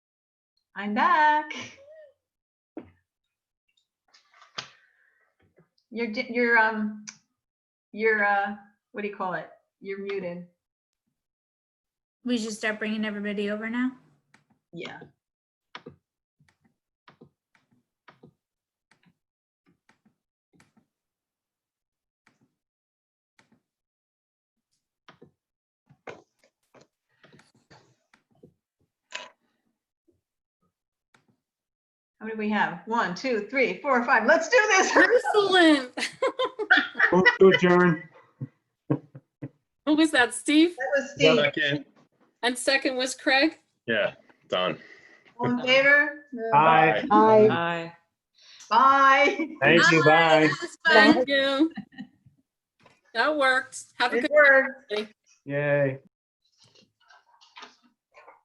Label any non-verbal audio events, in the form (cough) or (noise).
I'm back. You're, di- you're, um, you're, uh, what do you call it? You're muted. We should start bringing everybody over now. Yeah. How many do we have? One, two, three, four, five. Let's do this. (laughs) Excellent. Move to adjourn. Who was that, Steve? That was Steve. Second. And second was Craig? Yeah, done. All in favor? Aye. Aye. Aye. Bye. Thank you. Bye. That was fun. Thank you. That worked. Have a good Good work. Yay.